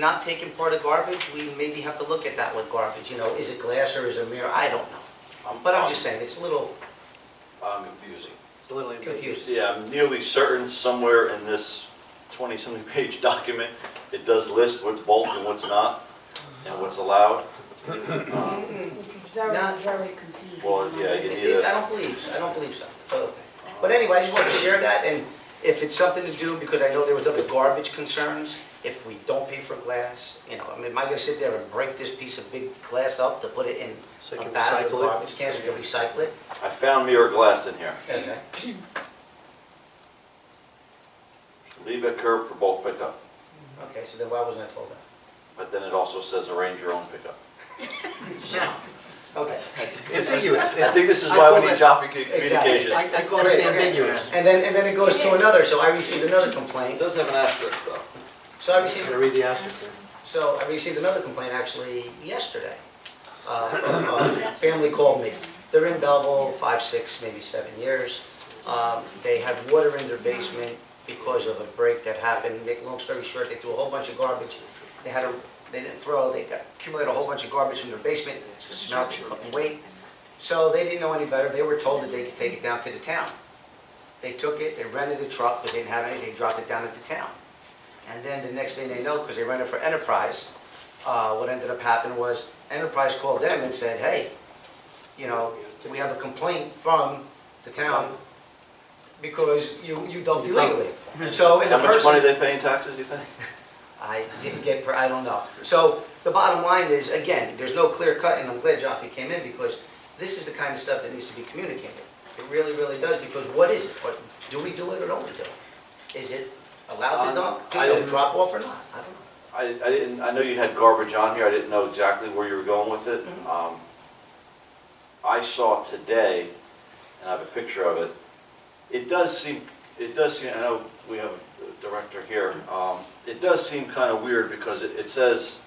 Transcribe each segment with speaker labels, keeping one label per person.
Speaker 1: Not taking part of garbage, we maybe have to look at that with garbage, you know, is it glass or is it mirror, I don't know.
Speaker 2: Um,
Speaker 1: But I'm just saying, it's a little
Speaker 3: I'm confusing.
Speaker 4: It's literally
Speaker 1: confusing.
Speaker 2: Yeah, I'm nearly certain somewhere in this twenty-something page document, it does list what's bulk and what's not, and what's allowed. Um,
Speaker 5: It's very,
Speaker 1: Not-
Speaker 5: very confusing.
Speaker 2: Well, yeah,
Speaker 1: It-
Speaker 2: you need
Speaker 1: it- I
Speaker 2: a,
Speaker 1: don't believe, so. I don't believe so, but okay. But anyway, I just wanted to share that, and if it's something to do, because I know there was other garbage concerns, if we don't pay for glass, you know, I mean, am I gonna sit there and break this piece of big glass up to put it in
Speaker 4: So you
Speaker 1: a
Speaker 4: can
Speaker 1: bag of
Speaker 4: recycle it?
Speaker 1: garbage cans, we can recycle it?
Speaker 2: I found mirror glass in here.
Speaker 1: Okay.
Speaker 2: Leave at curb for bulk pickup,
Speaker 1: Okay, so then why wasn't I told that?
Speaker 2: but then it also says arrange your own pickup.
Speaker 1: Okay.
Speaker 4: Ambiguous.
Speaker 2: I think this is
Speaker 4: I
Speaker 2: why
Speaker 4: call
Speaker 2: we need
Speaker 4: that-
Speaker 2: job commu-
Speaker 1: Exactly.
Speaker 2: communication.
Speaker 4: I, I call this
Speaker 1: Great, okay.
Speaker 4: ambiguous.
Speaker 1: And then, and then it goes to another, so I received another
Speaker 2: It
Speaker 1: complaint,
Speaker 2: does have an asterisk though.
Speaker 1: so I
Speaker 4: I'm
Speaker 1: received,
Speaker 4: gonna read the asterisk.
Speaker 1: so I received another complaint actually yesterday. Uh, a Family called me, they're in Belleville, five, six, maybe seven years. Um, They had water in their basement because of a break that happened, make a long story short, they threw a whole bunch of garbage. They had a, they didn't throw, they got- accumulated a whole bunch of garbage in their basement, It smelled, they couldn't wait. So they didn't know any better, they were told that they could take it down to the town. They took it, they rented a truck, because they didn't have anything, dropped it down at the town. And then the next thing they know, because they rented for Enterprise, uh, what ended up happening was Enterprise called them and said, hey, you know, we have a complaint from the town because you, you dumped illegally. So, and the
Speaker 2: How much money
Speaker 1: person,
Speaker 2: they pay in taxes, you think?
Speaker 1: I didn't get, per- I don't know. So the bottom line is, again, there's no clear cut, and I'm glad Jaffe came in because this is the kind of stuff that needs to be communicated. It really, really does, because what is it? What, do we do it or don't we do it? Is it allowed to dump, do
Speaker 2: I
Speaker 1: you
Speaker 2: don't-
Speaker 1: drop off or not? I don't know.
Speaker 2: I, I didn't, I know you had garbage on here, I didn't know exactly where you were going with it.
Speaker 1: Mhm.
Speaker 2: Um, I saw today, and I have a picture of it, it does seem, it does seem, I know we have a director here, um, it does seem kind of weird because it, it says,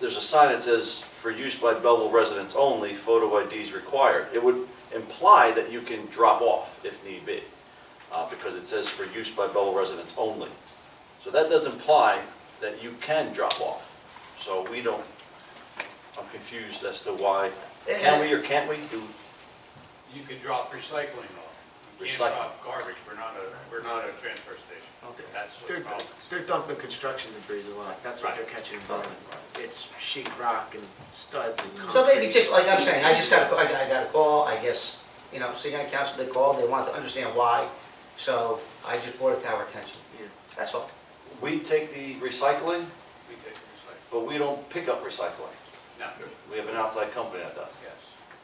Speaker 2: there's a sign that says, for use by Belleville residents only, photo IDs required. It would imply that you can drop off if need be, uh, because it says for use by Belleville residents only. So that does imply that you can drop off. So we don't, I'm confused as to why, can we or can't we do?
Speaker 6: You can drop recycling off. You
Speaker 2: Recycling.
Speaker 6: can't drop garbage, we're not a, we're not a transfer station.
Speaker 1: Okay.
Speaker 6: That's what
Speaker 7: They're,
Speaker 6: the problem
Speaker 7: they're dumping construction debris a lot, that's what they're catching and dumping. It's sheet rock and studs and concrete.
Speaker 1: So maybe just like I'm saying, I just got, a- I got I got a call, I guess, you know, city county council, they called, they wanted to understand why, so I just brought it to our attention.
Speaker 7: Yeah.
Speaker 1: That's all.
Speaker 2: We take the recycling,
Speaker 6: is. We take recycling,
Speaker 2: but we don't pick up recycling.
Speaker 6: now,
Speaker 2: We have an outside company that does,
Speaker 6: yes.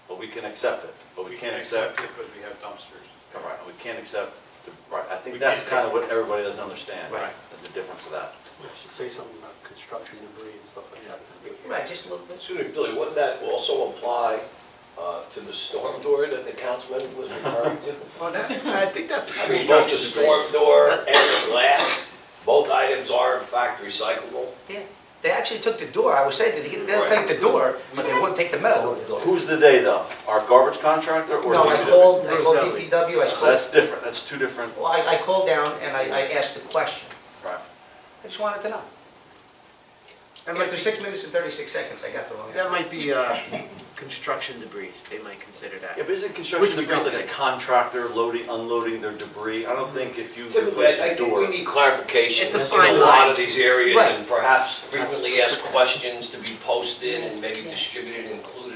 Speaker 2: but we can accept it, but we
Speaker 6: We
Speaker 2: can't
Speaker 6: can
Speaker 2: accept,
Speaker 6: accept it because we have dumpsters.
Speaker 2: all right, we can't accept, the- right, I think
Speaker 6: We
Speaker 2: that's
Speaker 6: can't
Speaker 2: kind of
Speaker 6: take-
Speaker 2: what everybody doesn't understand,
Speaker 6: Right.
Speaker 2: the difference of that.
Speaker 4: I should say something about construction debris and stuff like that.
Speaker 1: Right, just a little bit.
Speaker 3: Excuse me, Billy, wouldn't that also apply uh, to the storm door that the councilman was referring to?
Speaker 7: Well, that, I think that's.
Speaker 3: I mean, both the storm door and
Speaker 7: That's-
Speaker 3: the glass, both items are in fact recyclable.
Speaker 1: Yeah, they actually took the door, I was saying, they didn't they'll take the door, but they wouldn't take the metal of the door.
Speaker 2: Who's the they though? Our garbage contractor or?
Speaker 1: No, I
Speaker 2: DPW?
Speaker 1: called, I called
Speaker 7: Roselli.
Speaker 1: DPW, I
Speaker 2: So
Speaker 1: spoke,
Speaker 2: that's different, that's two different,
Speaker 1: well, I, I called down and I, I asked the question.
Speaker 2: right.
Speaker 1: I just wanted to know.
Speaker 7: That might
Speaker 1: After
Speaker 7: be,
Speaker 1: six minutes and thirty-six seconds, I got the wrong
Speaker 7: that
Speaker 1: answer.
Speaker 7: might be, uh, construction debris, they might consider that.
Speaker 2: Yeah, but isn't construction
Speaker 7: Which we
Speaker 2: debris
Speaker 7: don't
Speaker 2: like a
Speaker 7: take.
Speaker 2: contractor loading, unloading their debris? I don't think if you
Speaker 3: Typically,
Speaker 2: replace
Speaker 3: I
Speaker 2: a
Speaker 3: think we
Speaker 2: door.
Speaker 3: need clarification
Speaker 7: It's a
Speaker 3: in
Speaker 7: fine
Speaker 3: a lot
Speaker 7: line.
Speaker 3: of these areas
Speaker 7: Right.
Speaker 3: and perhaps frequently asked questions to be posted and
Speaker 5: Yes,
Speaker 3: maybe
Speaker 5: yes.
Speaker 3: distributed, included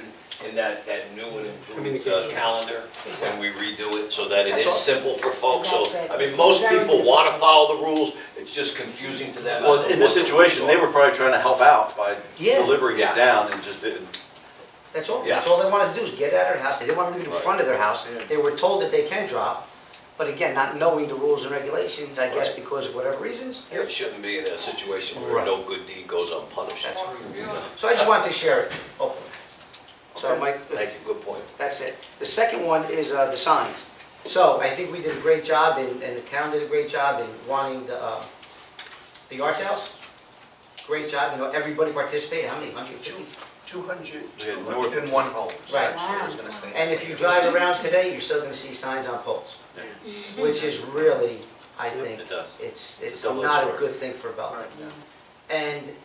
Speaker 3: in that, that new and improved uh,
Speaker 4: Communication.
Speaker 3: calendar when we redo it so that it
Speaker 1: That's all.
Speaker 3: is simple for folks. So,
Speaker 5: That's it.
Speaker 3: I mean, most
Speaker 5: Very
Speaker 3: people want to
Speaker 5: difficult.
Speaker 3: follow the rules, it's just confusing to them. as
Speaker 2: Well,
Speaker 3: to
Speaker 2: in this
Speaker 3: what the
Speaker 2: situation,
Speaker 3: rules
Speaker 2: they
Speaker 3: are.
Speaker 2: were probably trying to help out by
Speaker 1: Yeah.
Speaker 2: delivering
Speaker 3: Yeah.
Speaker 2: it down and just didn't.
Speaker 1: That's all,
Speaker 3: Yeah.
Speaker 1: that's all they wanted to do is get out of their house, they didn't want to leave it in front of their house.
Speaker 7: Yeah.
Speaker 1: They were told that they can drop, but again, not knowing the rules and regulations, I guess
Speaker 3: Right.
Speaker 1: because of whatever reasons.
Speaker 3: It shouldn't be in a situation where
Speaker 1: Right.
Speaker 3: no good deed goes unpunished.
Speaker 1: That's- So I just wanted to share it, hopefully. So Mike,
Speaker 3: Thank you, good point.
Speaker 1: that's it. The second one is uh, the signs. So I think we did a great job, and, and the town did a great job in wanting the, uh, the arts house. Great job, you know, everybody participated, how many, hundred fifty?
Speaker 4: Two hundred,
Speaker 2: Yeah, north.
Speaker 4: in one home, so
Speaker 1: Right.
Speaker 4: actually, I was gonna say.
Speaker 1: And if you drive around today, you're still gonna see signs on poles,
Speaker 2: Yeah.
Speaker 1: which is really, I think,
Speaker 2: It does.
Speaker 1: it's, it's
Speaker 2: Double-edged
Speaker 1: not a
Speaker 2: sword.
Speaker 1: good thing for Belleville.
Speaker 7: Right,
Speaker 1: And